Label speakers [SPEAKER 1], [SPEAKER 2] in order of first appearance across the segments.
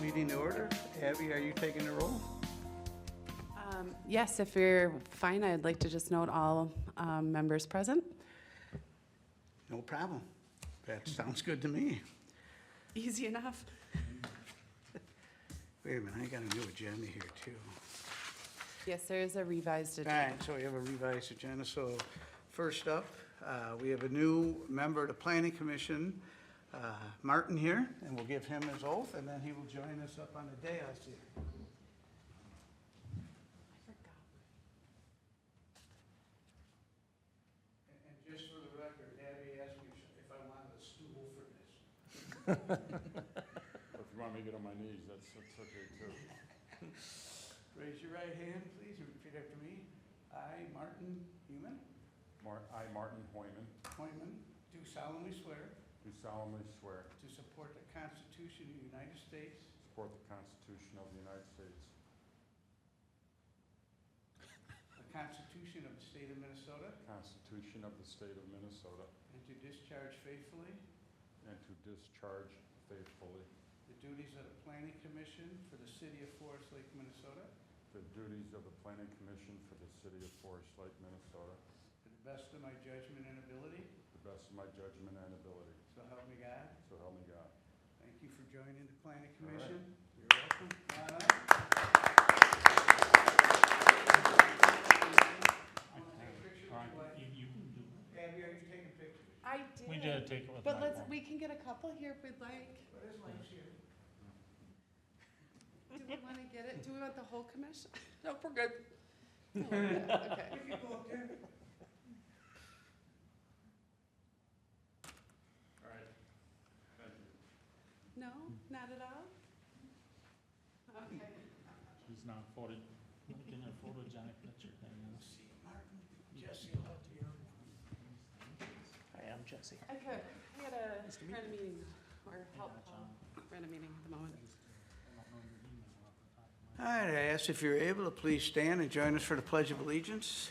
[SPEAKER 1] meeting to order. Abby, are you taking the roll?
[SPEAKER 2] Um, Yes, if you're fine, I'd like to just note all um, members present.
[SPEAKER 1] No problem. That sounds good to me.
[SPEAKER 2] Easy enough.
[SPEAKER 1] Wait a minute, I got a new agenda here too.
[SPEAKER 2] Yes, there is a revised
[SPEAKER 1] All
[SPEAKER 2] agenda.
[SPEAKER 1] right, so we have a revised agenda. So first up, uh, we have a new member of the Planning Commission, uh, Martin here, and we'll give him his oath, and then he will join us up on the dais here. And- And just for the record, Abby asked me if I wanted a stool for this.
[SPEAKER 3] If you want me to get on my knees, that's, that's okay too.
[SPEAKER 1] Raise your right hand, please, and repeat after me. I, Martin Heumann,
[SPEAKER 3] Mar, I, Martin Hoyman,
[SPEAKER 1] Hoyman, do solemnly swear
[SPEAKER 3] do solemnly swear
[SPEAKER 1] to support the Constitution of the United States
[SPEAKER 3] to support the Constitution of the United States,
[SPEAKER 1] The Constitution of the State of Minnesota,
[SPEAKER 3] the Constitution of the State of Minnesota,
[SPEAKER 1] and to discharge faithfully
[SPEAKER 3] and to discharge faithfully
[SPEAKER 1] the duties of the Planning Commission for the City of Forest Lake, Minnesota,
[SPEAKER 3] the duties of the Planning Commission for the City of Forest Lake, Minnesota,
[SPEAKER 1] to the best of my judgment and ability,
[SPEAKER 3] to the best of my judgment and ability,
[SPEAKER 1] so help me God.
[SPEAKER 3] so help me God.
[SPEAKER 1] Thank you for joining the Planning
[SPEAKER 3] All right.
[SPEAKER 1] Commission. You're welcome. Come on up. I wanna take pictures
[SPEAKER 4] All right,
[SPEAKER 1] with you.
[SPEAKER 4] you, you can do it.
[SPEAKER 1] Abby, are you taking pictures?
[SPEAKER 2] I
[SPEAKER 4] We
[SPEAKER 2] did,
[SPEAKER 4] did take it with my
[SPEAKER 2] but let's,
[SPEAKER 4] phone.
[SPEAKER 2] we can get a couple here if we'd like.
[SPEAKER 1] What is my shoe?
[SPEAKER 2] Do we want to get it? Do we want the whole commission? No, we're good. Okay.
[SPEAKER 1] We can go up there.
[SPEAKER 3] All right, thank you.
[SPEAKER 2] No, not at all? Okay.
[SPEAKER 4] He's not photo, making a photogenic picture thing.
[SPEAKER 1] See, Martin, Jesse will help you out.
[SPEAKER 4] Hi, I'm Jesse.
[SPEAKER 2] I could, we had a,
[SPEAKER 4] Nice to meet
[SPEAKER 2] we're at a meeting, or help,
[SPEAKER 4] John.
[SPEAKER 2] we're at a meeting at the
[SPEAKER 4] I
[SPEAKER 2] moment.
[SPEAKER 4] just, uh, I don't know your email off the top of my
[SPEAKER 1] All right, I ask if you're able to please stand and join us for the Pledge of Allegiance.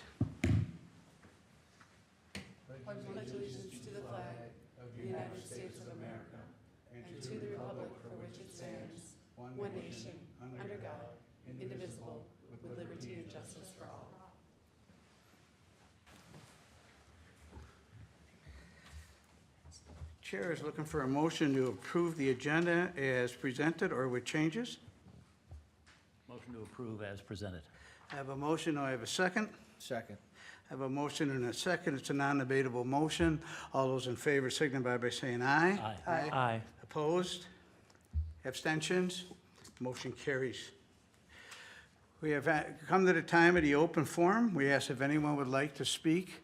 [SPEAKER 2] Pledge allegiance to the flag of the United States of America and to the republic for which it stands, one nation, under God, indivisible, with liberty and justice for all.
[SPEAKER 1] Chair is looking for a motion to approve the agenda as presented or with changes.
[SPEAKER 5] Motion to approve as presented.
[SPEAKER 1] I have a motion, I have a second.
[SPEAKER 5] Second.
[SPEAKER 1] I have a motion and a second, it's a non-debatable motion. All those in favor signify by saying aye.
[SPEAKER 5] Aye.
[SPEAKER 4] Aye.
[SPEAKER 1] Opposed? Abstentions? Motion carries. We have uh, come to the time of the open forum. We ask if anyone would like to speak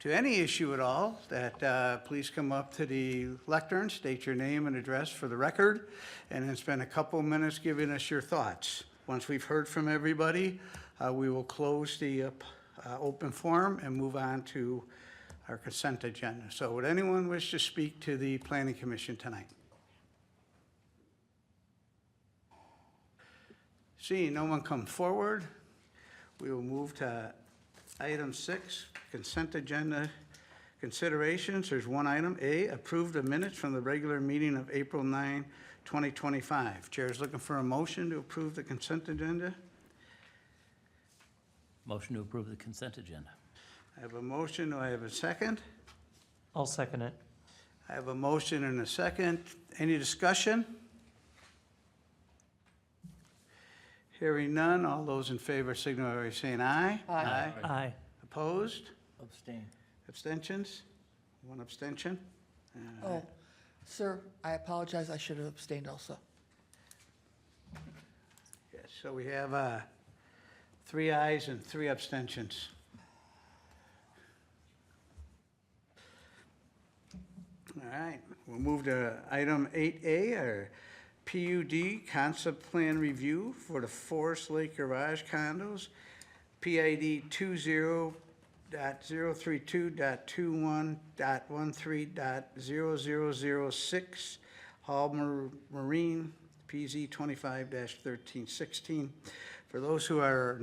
[SPEAKER 1] to any issue at all, that uh, please come up to the lectern, state your name and address for the record, and then spend a couple minutes giving us your thoughts. Once we've heard from everybody, uh, we will close the uh, p- uh, open forum and move on to our consent agenda. So would anyone wish to speak to the planning commission tonight? Seeing no one come forward, we will move to item six, consent agenda considerations. There's one item, A, approve the minutes from the regular meeting of April 9, 2025. Chair is looking for a motion to approve the consent agenda.
[SPEAKER 5] Motion to approve the consent agenda.
[SPEAKER 1] I have a motion, do I have a second?
[SPEAKER 4] I'll second it.
[SPEAKER 1] I have a motion and a second. Any discussion? Hearing none, all those in favor signify by saying aye. Aye.
[SPEAKER 4] Aye.
[SPEAKER 1] Opposed?
[SPEAKER 5] Abstain.
[SPEAKER 1] Abstentions? One abstention? All right.
[SPEAKER 6] Oh, sir, I apologize. I should have abstained also.
[SPEAKER 1] Yes, so we have uh, three ayes and three abstentions. All right, we'll move to item 8A, our PUD concept plan review for the Forest Lake Garage condos, PID 20.032.21.13.0006, Hall Mar- Marine, PZ 25-1316. For those who are